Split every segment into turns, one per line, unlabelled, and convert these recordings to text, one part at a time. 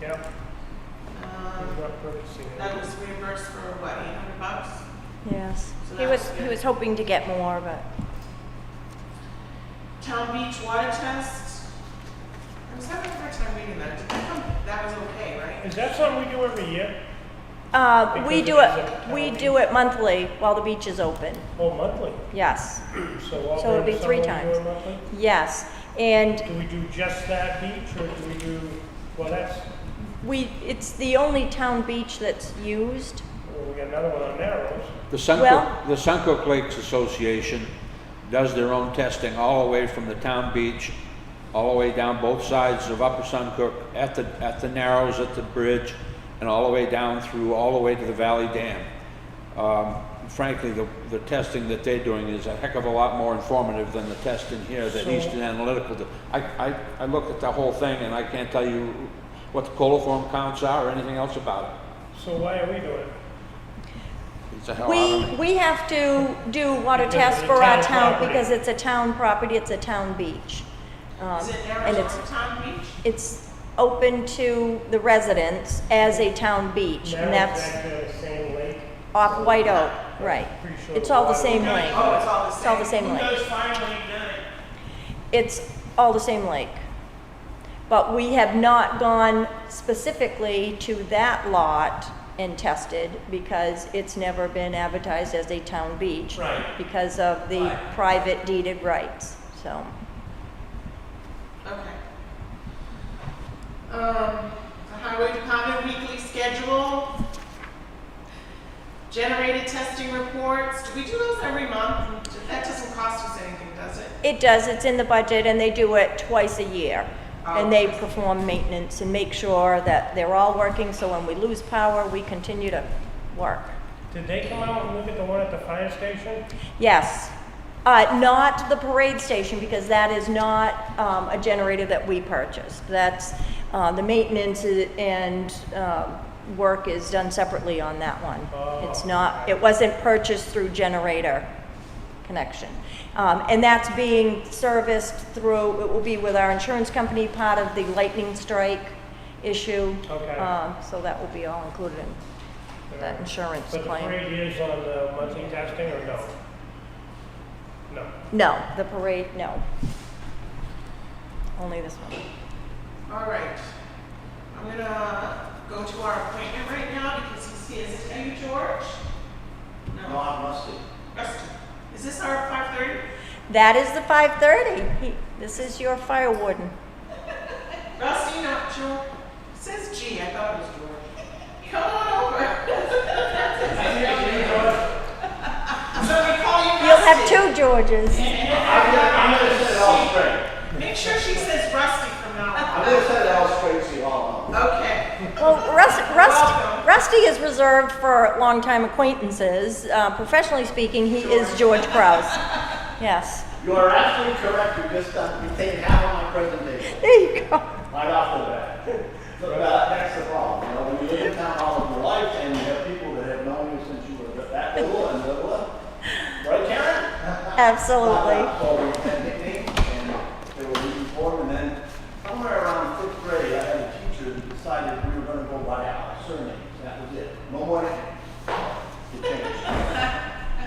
Yeah,
Um,
about purchasing it.
that was reimbursed for what, eight hundred bucks?
Yes.
So
He
that
was,
was
he
good.
was hoping to get more, but
Town beach water test. I was having a hard time reading that. Did that come, that was okay, right?
Is that something we do every year?
Uh, we
Because
do
it is
it,
a
we
town
do it monthly while the beach is open,
Oh, monthly?
yes,
So all
So it'd
during
be
the
three
summer we do it
times.
monthly?
yes. And
Do we do just that beach or do we do, well, that's,
we, it's the only town beach that's used.
well, we got another one on Narrows.
The
Well-
Suncook, the Suncook Lakes Association does their own testing all the way from the town beach, all the way down both sides of Upper Suncook, at the, at the Narrows, at the bridge, and all the way down through, all the way to the Valley Dam. Um, Frankly, the, the testing that they're doing is a heck of a lot more informative than the testing here that
So-
Eastern Analytical do. I, I, I look at the whole thing and I can't tell you what the coliform counts are or anything else about
So why are we doing it?
it. It's a hell out of
We,
a-
we have to do water
Because
tests
it's
for our
town
town,
property.
because it's a town property, it's a town beach. Um,
Is it
And
Narrows
it's,
or Town Beach?
it's open to the residents as a town beach, and
Narrows
that's
back to the same lake.
off White Oak, right.
Pretty sure
It's all the
the
same
Oh,
lake.
it's all the same.
It's all the same lake.
Who goes finally done it?
It's all the same lake. But we have not gone specifically to that lot and tested because it's never been advertised as a town beach.
Right.
Because of the
Right.
private deeded rights, so.
Okay. Um, the highway department weekly schedule. Generated testing reports. Do we do those every month? That doesn't cost us anything, does it?
It does, it's in the budget and they do it twice a year. And they perform maintenance and make sure that they're all working, so when we lose power, we continue to work.
Did they come out and look at the one at the fire station?
Yes. Uh, not the parade station, because that is not, um, a generator that we purchased. That's, uh, the maintenance i- and, um work is done separately on that one.
Oh.
It's not, it wasn't purchased through generator connection. Um, and that's being serviced through, it will be with our insurance company, part of the lightning strike issue.
Okay.
Um, so that will be all included in that insurance
But Uh, the
claim.
parade is on the monthly testing or no? No.
No, the parade, no. Only this one.
All right. I'm gonna go to our appointment right now because he's here. Is it are you, George?
No,
No.
I'm rusty.
Rusty. Is this our five thirty?
That is the 5:30. He- This is your fire warden.
Rusty, not George. It says G. I thought it was George. Come on over. so we call you.
You'll have
Rusty.
two Georges.
I'm gonna, I'm gonna set it all straight.
Make sure she says Rusty from now
I'm gonna set it all straight so you all
on.
know.
Okay.
Well, Rust- Rust-
welcome.
Rusty is reserved for longtime acquaintances. Uh, Professionally speaking, he is George Kraus. Yes.
You are absolutely correct, you just, uh, you take half of my presentation,
There you go.
right off the bat. So that, that's the problem, you know, when you live in town all of your life and you have people that have known you since you were that little and little, right Karen?
Absolutely.
So we had nicknames and they were looking for them, and then somewhere around fifth grade, I had a teacher that decided we were gonna go by our surnames, that was it, no more nicknames. It changed.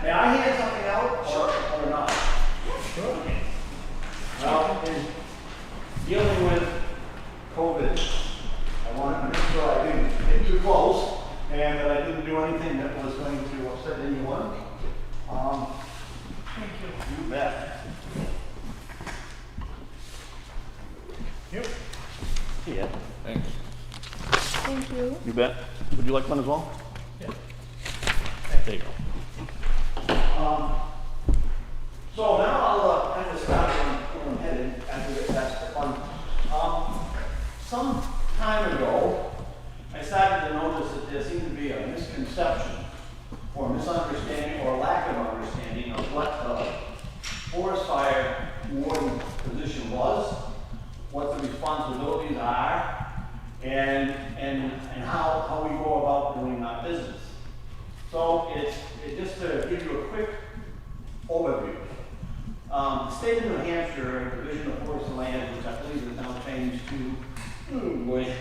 May I hand something out or, or not?
Sure.
Well, in dealing with COVID, I wanted to make sure I didn't get too close and that I didn't do anything that was going to upset anyone. Um, Thank you. You bet.
Yep.
Yeah.
Thanks.
Thank you.
You bet. Would you like one as well?
Yeah.
There you go. Um, so now I'll uh, kind of start on where I'm headed after we get past the fun. Um, some time ago, I started to notice that there seemed to be a misconception or misunderstanding or lack of understanding of what the forest fire warden position was, what the responsibilities are, and, and, and how, how we go about doing our business. So it's, it, just to give you a quick overview. Um, the state of New Hampshire, Division of Forest and Land, which I believe is now changed to, oh boy,